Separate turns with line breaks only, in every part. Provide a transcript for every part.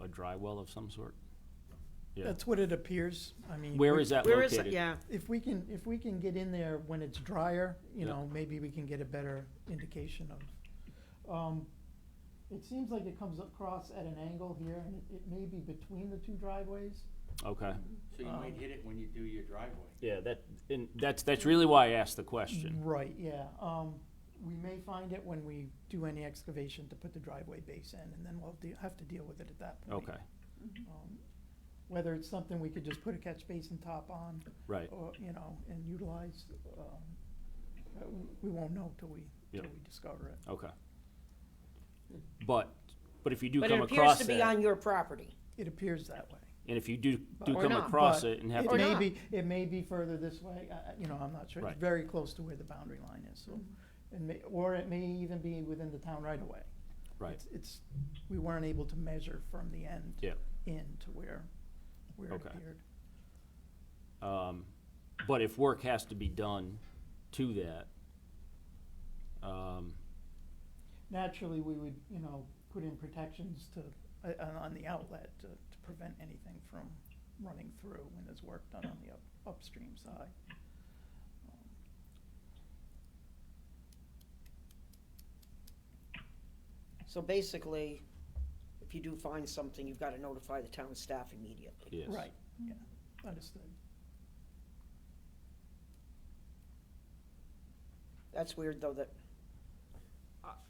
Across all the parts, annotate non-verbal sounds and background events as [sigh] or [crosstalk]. a dry well of some sort? Yeah.
That's what it appears, I mean.
Where
we-
is that
Mm-hmm. Where is it?
located?
Yeah,
If we can, if we can get in there when it's drier, you
Yeah.
know, maybe we can get a better indication of. Um, It seems like it comes across at an angle here, and it- it may be between the two driveways.
Okay.
So you might hit it when you do your driveway.
Yeah, that, and that's, that's really why I asked the
Mm-hmm.
question.
Right, yeah. Um, we may find it when we do any excavation to put the driveway base in, and then we'll de- have to deal with it at that point.
Okay,
Um, Whether it's something we could just put a catch basin top on,
right.
or, you know, and utilize, um, uh, w- we won't know till we, till
Yep.
we discover it.
Okay. But, but if you do
but it
come
appears
across
to
that,
be
and
on your property.
It appears that way.
if you do, do
Or
come
not,
across
but
it and have
It
Or
to,
may
not.
be, it may be further this way, I, I- you know, I'm not sure.
Right.
It's very close to where the boundary line is, so,
Mm-hmm.
it may, or it may even be within the town right away.
right,
It's- It's, we weren't able to measure from the end.
Yeah.
In to where, where it
Okay.
appeared.
um, but if work has to be done to that, um,
Naturally, we would, you know, put in protections to, uh, on- on the outlet to, to prevent anything from running through when there's work done on the up- upstream side.
So basically, if you do find something, you've gotta notify the town staff immediately.
yes.
Right, yeah, understood.
That's weird, though, that,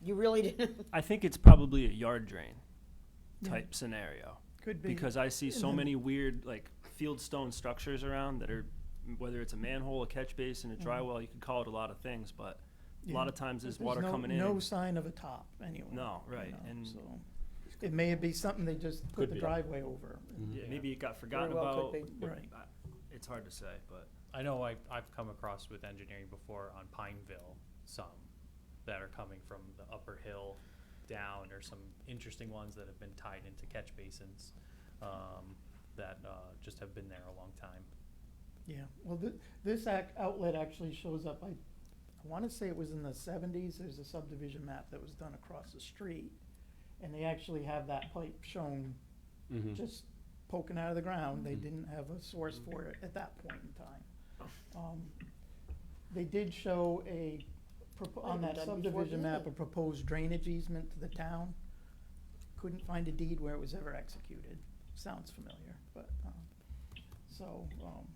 you really didn't, [laughs]
I think it's probably a yard drain
Yeah,
type scenario
Could be.
because I see
And
so
then-
many weird like field stone structures around that are whether it's a manhole, a catch basin, a dry well, you could call it a lot of things, but a lot
Yeah.
of times there's
There's
water
no-
coming in.
No
and-
sign of a top, anyway.
No,
you
right,
know,
and-
So, it may be something they just
Could
put the
be.
driveway over,
yeah,
Yeah.
maybe it got forgotten
well
about.
could
Yep.
right,
It's hard to say, but
I know I, I've come across with engineering before on Pineville, some that are coming from the upper hill down, or some interesting ones that have been tied into catch basins, um, that, uh, just have been there a long time.
yeah. Well, thi- this ac- outlet actually shows up, I, I wanna say it was in the seventies, there's a subdivision map that was done across the street. And they actually have that pipe shown
Mhm.
just poking out of the ground, they
Mhm.
didn't have a source for it at that point in time. Um, They did show a, propo- on
Might have
that
been done before
subdivision map, a
then.
proposed drainage easement to the town. Couldn't find a deed where it was ever executed, sounds familiar, but, um, so, um,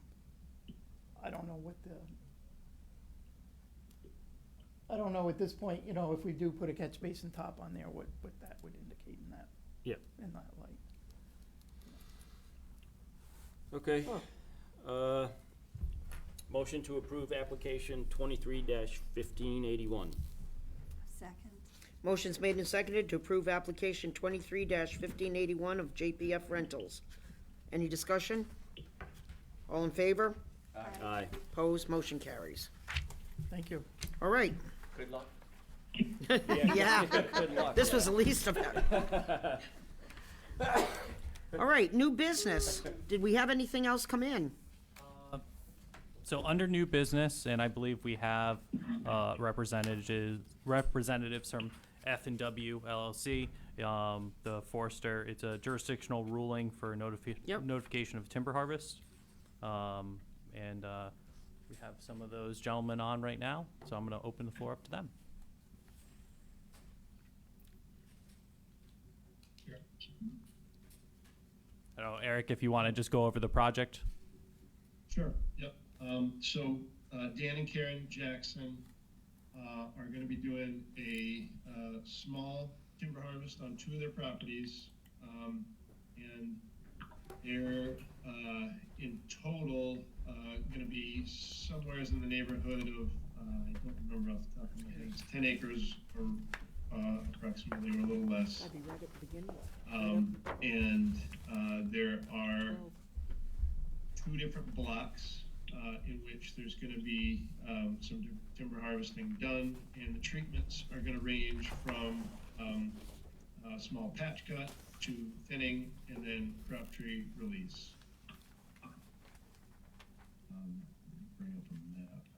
I don't know what the, I don't know at this point, you know, if we do put a catch basin top on there, what, what that would indicate in that.
Yep.
In that light.
Okay.
Huh.
Uh, motion to approve application twenty-three fifteen eighty-one.
Second.
Motion's made and seconded to approve application twenty-three fifteen eighty-one of JPF Rentals. Any discussion? All in favor?
Aye.
Opposed? Motion carries.
Thank you.
All right,
Good luck.
[laughs] yeah.
Good luck.
This was the least of it. All right, new business. Did we have anything else come in?
So under new business, and I believe we have uh, representatives representatives from F and W LLC, um, the Forester. It's a jurisdictional ruling for notifi-
Yep.
notification of timber harvest, um, and uh, we have some of those gentlemen on right now. So I'm going to open the floor up to them. I don't know, Eric, if you want to just go over the project.
Sure, yep. Um, so, uh, Dan and Karen Jackson, uh, are gonna be doing a, uh, small timber harvest on two of their properties. Um, and they're, uh, in total, uh, gonna be somewhere in the neighborhood of, uh, I don't remember off the top of my head, it's ten acres or, uh, approximately, or a little less.
be right at the beginning.
Um, and, uh, there are two different blocks, uh, in which there's gonna be, um, some di- timber harvesting done, and the treatments are gonna range from, um, uh, small patch cut to thinning, and then crop tree release. Um, let me Bring up a map.